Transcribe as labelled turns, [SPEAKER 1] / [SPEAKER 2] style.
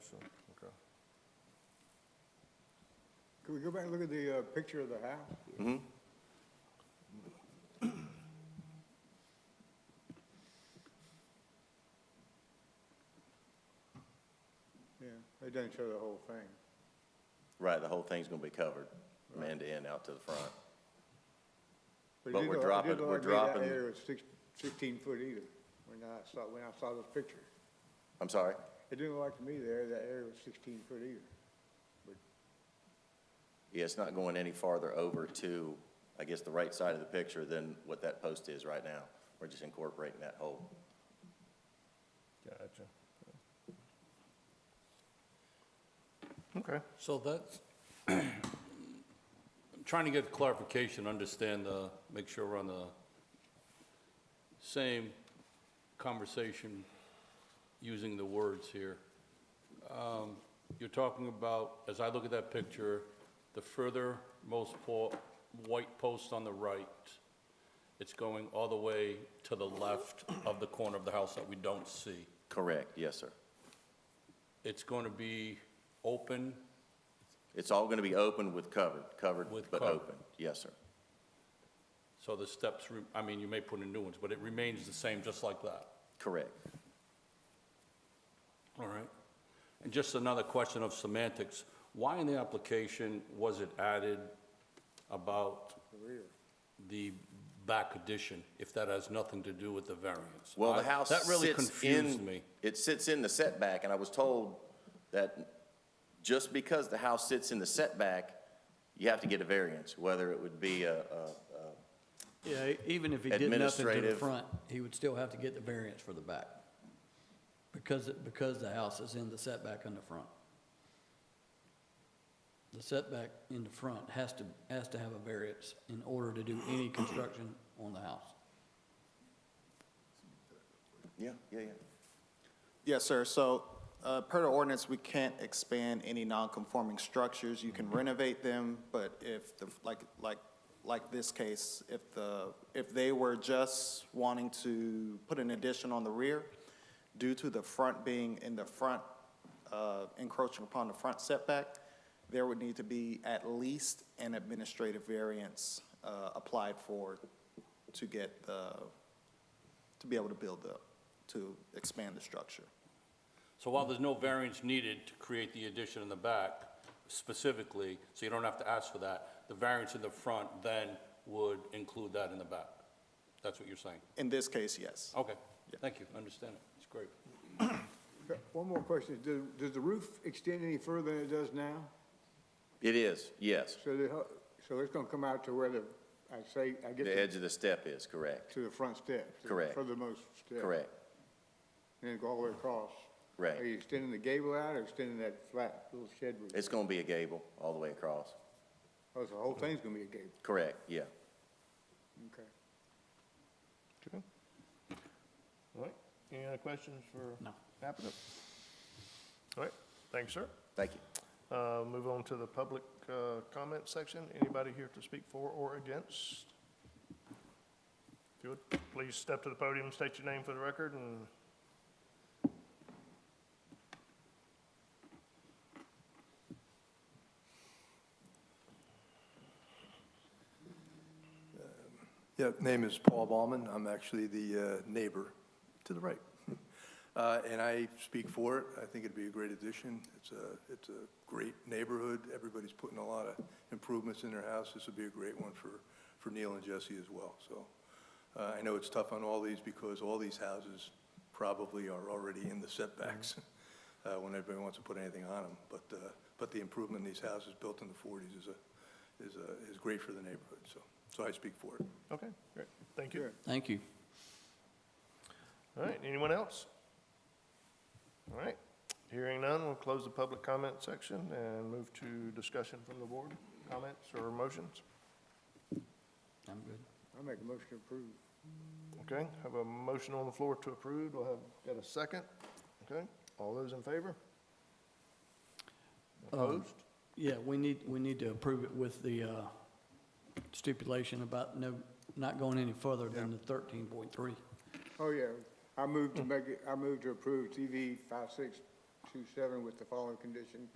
[SPEAKER 1] So, okay.
[SPEAKER 2] Can we go back and look at the uh, picture of the house?
[SPEAKER 3] Mm-hmm.
[SPEAKER 2] Yeah, it doesn't show the whole thing.
[SPEAKER 3] Right, the whole thing's gonna be covered, from end to end, out to the front.
[SPEAKER 2] it
[SPEAKER 3] But
[SPEAKER 2] did
[SPEAKER 3] we're
[SPEAKER 2] look- it
[SPEAKER 3] dropping-
[SPEAKER 2] did look
[SPEAKER 3] we're
[SPEAKER 2] like me that
[SPEAKER 3] dropping-
[SPEAKER 2] area was six- 16 foot either, when I saw, when I saw the picture.
[SPEAKER 3] I'm sorry?
[SPEAKER 2] It didn't look like to me there, that area was 16 foot either.
[SPEAKER 3] Yeah, it's not going any farther over to, I guess, the right side of the picture than what that post is right now. We're just incorporating that whole.
[SPEAKER 1] Gotcha. Okay.
[SPEAKER 4] So that's, I'm trying to get clarification, understand, uh, make sure we're on the same conversation, using the words here. Um, You're talking about, as I look at that picture, the furthermost po- white post on the right, it's going all the way to the left of the corner of the house that we don't see.
[SPEAKER 3] Correct, yes, sir.
[SPEAKER 4] It's going to be open
[SPEAKER 3] It's all gonna be open with covered, covered
[SPEAKER 4] With
[SPEAKER 3] but
[SPEAKER 4] covered.
[SPEAKER 3] open. Yes, sir.
[SPEAKER 4] So the steps, re- I mean, you may put in new ones, but it remains the same, just like that.
[SPEAKER 3] Correct.
[SPEAKER 4] All right. And just another question of semantics. Why in the application was it added about the back addition, if that has nothing to do with the variance?
[SPEAKER 3] Well,
[SPEAKER 4] I-
[SPEAKER 3] the house
[SPEAKER 4] That really
[SPEAKER 3] sits in-
[SPEAKER 4] confused me.
[SPEAKER 3] It sits in the setback, and I was told that just because the house sits in the setback, you have to get a variance, whether it would be a, a
[SPEAKER 5] Yeah, e- even if he did nothing to the
[SPEAKER 3] Administrative.
[SPEAKER 5] front, he would still have to get the variance for the back. Because, it- because the house is in the setback on the front. The setback in the front has to, has to have a variance in order to do any construction on the house.
[SPEAKER 3] Yeah, yeah, yeah.
[SPEAKER 6] Yes, sir. So, uh, per the ordinance, we can't expand any non-conforming structures. You can renovate them, but if the, like, like, like this case, if the, if they were just wanting to put an addition on the rear, due to the front being in the front, uh, encroaching upon the front setback, there would need to be at least an administrative variance, uh, applied for to get the, to be able to build the, to expand the structure.
[SPEAKER 4] So while there's no variance needed to create the addition in the back specifically, so you don't have to ask for that, the variance in the front then would include that in the back. That's what you're saying?
[SPEAKER 6] In this case, yes.
[SPEAKER 4] Okay, thank you, I understand it, it's great.
[SPEAKER 2] Okay, One more question, does, does the roof extend any further than it does now?
[SPEAKER 3] It is, yes.
[SPEAKER 2] So the, ho- so it's gonna come out to where the, I say, I guess,
[SPEAKER 3] The
[SPEAKER 2] the-
[SPEAKER 3] edge of the step is, correct,
[SPEAKER 2] to the front step? to the
[SPEAKER 3] Correct.
[SPEAKER 2] Furthermost step?
[SPEAKER 3] correct.
[SPEAKER 2] And then go all the way across?
[SPEAKER 3] Right.
[SPEAKER 2] Are you extending the gable out or extending that flat little shed roof?
[SPEAKER 3] It's gonna be a gable all the way across,
[SPEAKER 2] Oh, so the whole thing's gonna be a gable,
[SPEAKER 3] correct, yeah.
[SPEAKER 2] okay.
[SPEAKER 1] Okay. All right, any other questions for
[SPEAKER 5] No.
[SPEAKER 1] applicant? All right, thanks, sir.
[SPEAKER 3] Thank you.
[SPEAKER 1] Uh, Move on to the public uh, comment section. Anybody here to speak for or against? If you would, please step to the podium, state your name for the record, and
[SPEAKER 7] Yeah, name is Paul Ballman. I'm actually the uh, neighbor to the right. Uh, And I speak for it. I think it'd be a great addition. It's a, it's a great neighborhood. Everybody's putting a lot of improvements in their house. This would be a great one for, for Neil and Jesse as well, so. uh, I know it's tough on all these because all these houses probably are already in the setbacks uh, when everybody wants to put anything on them. But, uh, but the improvement in these houses built in the forties is a, is a, is great for the neighborhood, so. So I speak for it.
[SPEAKER 1] okay, great, thank you.
[SPEAKER 5] Thank you.
[SPEAKER 1] All right, anyone else? All right, hearing none, we'll close the public comment section and move to discussion from the board, comments or motions.
[SPEAKER 5] I'm good.
[SPEAKER 2] I make a motion to approve.
[SPEAKER 1] Okay, have a motion on the floor to approve. We'll have, got a second? Okay, all those in favor?
[SPEAKER 5] Um,
[SPEAKER 1] Opposed?
[SPEAKER 5] Yeah, we need, we need to approve it with the uh, stipulation about no, not going any further than the thirteen point three.
[SPEAKER 2] Oh, yeah, I move to make it, I move to approve TV five six two seven with the following condition.